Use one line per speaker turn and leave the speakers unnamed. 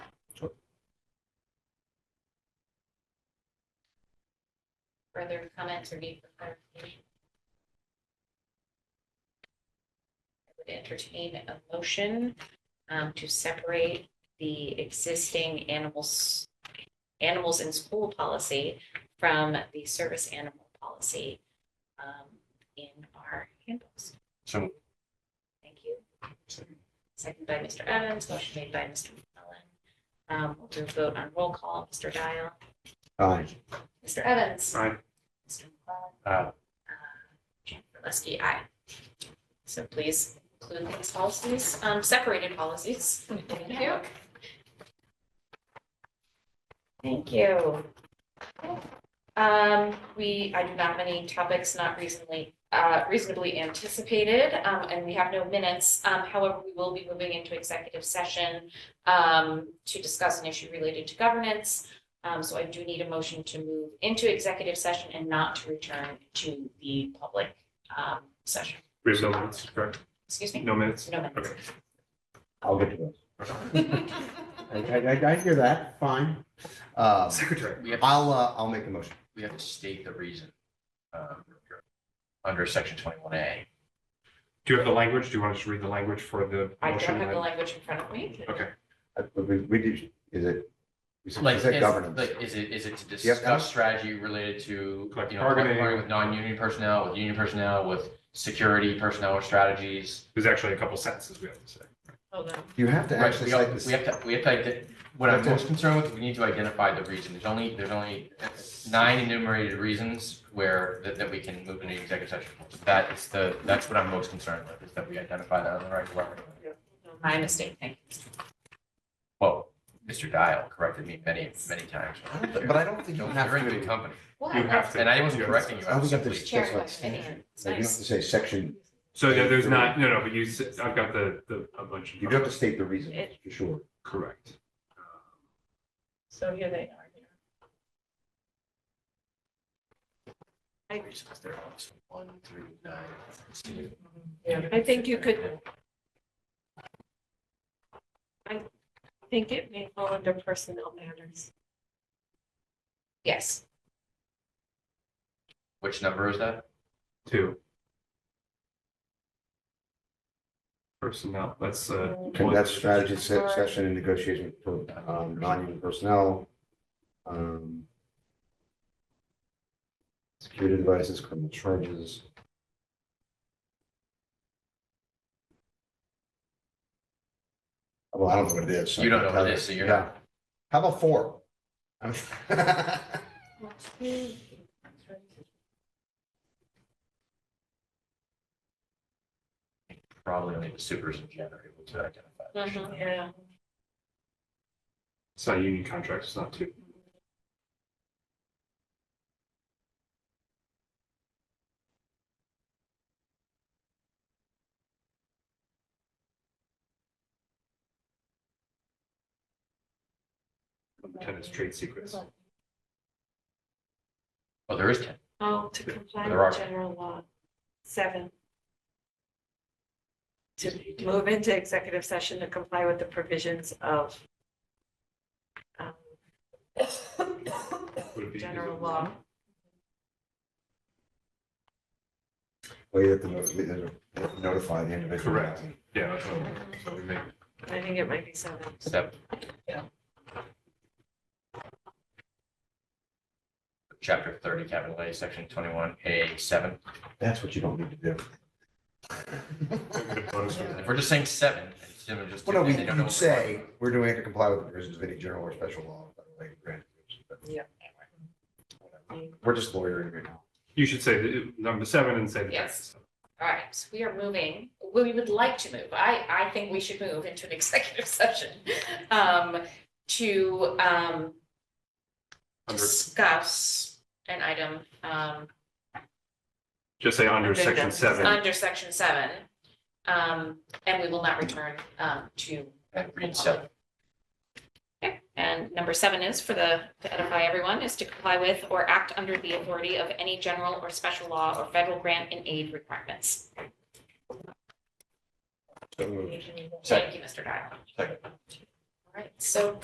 further comments or need for clarification? I would entertain a motion um, to separate the existing animals, animals in school policy from the service animal policy um, in our handbooks.
So,
Thank you. Second by Mr. Evans, motion made by Mr. McClellan. Um, We'll do a vote on roll call. Mr. Dial.
aye.
Mr. Evans.
Aye.
Mr. McClellan.
Aye.
uh, Jennifer Leskey, aye. So please include these policies, um, separated policies. Thank you. Thank you. Um, we, I do not have any topics not reasonably, uh, reasonably anticipated, um, and we have no minutes. Um, however, we will be moving into executive session, um, to discuss an issue related to governance. Um, so I do need a motion to move into executive session and not to return to the public, um, session.
We have no minutes, correct?
Excuse me?
No minutes?
No minutes.
Okay.
I'll get to those. I, I, I- I hear that, fine. Uh,
Secretary.
We have,
I'll, uh, I'll make a motion.
we have to state the reason, um, under section twenty-one A.
Do you have the language? Do you want to just read the language for the
I
motion?
don't have
and
the
then-
language in front of me.
Okay,
Uh, We, we did, is it? we said- we
Like,
said
is-
governance.
Like, is it, is it to
Yep, Alan?
discuss strategy related to, you
Collective
know, collective
bargaining.
bargaining with non-union personnel, with union personnel, with security personnel or strategies?
there's actually a couple sentences we have to say.
Hold on.
You have to
Right,
actually
we
cite
have,
this.
we have to, we have to, ident- what I'm
Okay.
most concerned with, we need to identify the reason. There's only, there's only nine enumerated reasons where, that, that we can move into executive session. That is the, that's what I'm most concerned with, is that we identify that on the right level.
My mistake, thank you.
Well, Mr. Dial corrected me many, many times.
But I don't think you
You're
have
in
to.
good
Oh,
company.
Well,
You have to.
And I wasn't
you have to-
correcting you.
I
I
don't
was
think
simply,
there's,
Chair
that's like standard.
question. It's
Like, You don't have
nice.
to say section,
So there- there's not, no, no, but you, s- I've got the, the, a bunch.
you do have to state the reason,
It-
for sure.
Correct.
So here they are. here.
one, three, nine, two.
Yeah, I think you could, I think it may fall under personnel matters. Yes,
Which number is that?
Two. Personnel, that's, uh.
Conduct
one-
strategy se- session and negotiation for um, non-union personnel. um, Security devices, criminal charges. Well, I don't know what it is. so
You don't
I
know
can't
what it
tell
is, so
you.
you're
Yeah.
not-
How about four? I mean,
Mm-hmm.
Probably only the supers and gen are able to identify.
Mhm, yeah.
It's not union contracts, it's not two. Tenants trade secrets.
Oh, there is ten.
Oh, to comply
There are.
with general law. Seven. To move into executive session to comply with the provisions of um,
Would it be-
general law.
Well, you have to not- you have to notify the individual.
Correct. Yeah, that's what I'm- so we make,
I think it might be seven.
Seven. Chapter thirty, capital A, section twenty-one, A seven.
That's what you don't need to do.
If we're just saying seven, it's gonna just.
Well, no, we
they don't
could
know what we're talking
say, we're doing it to comply with the provisions of any general or special law. by the way, granted, but-
Yeah.
Whatever. We're just lawyering right now.
you should say the- number seven and say the.
Yes. All right, so we are moving, we would like to move, I, I think we should move into an executive session, um, to, um,
Under,
discuss an item, um,
just say under
Under
section
justice.
seven.
under section seven. Um, and we will not return, um, to
about. And read seven.
Okay, and number seven is for the, to edify everyone, is to comply with or act under the authority of any general or special law or federal grant and aid requirements.
So moved.
Thank you, Mr. Dial. All
Second.
right, so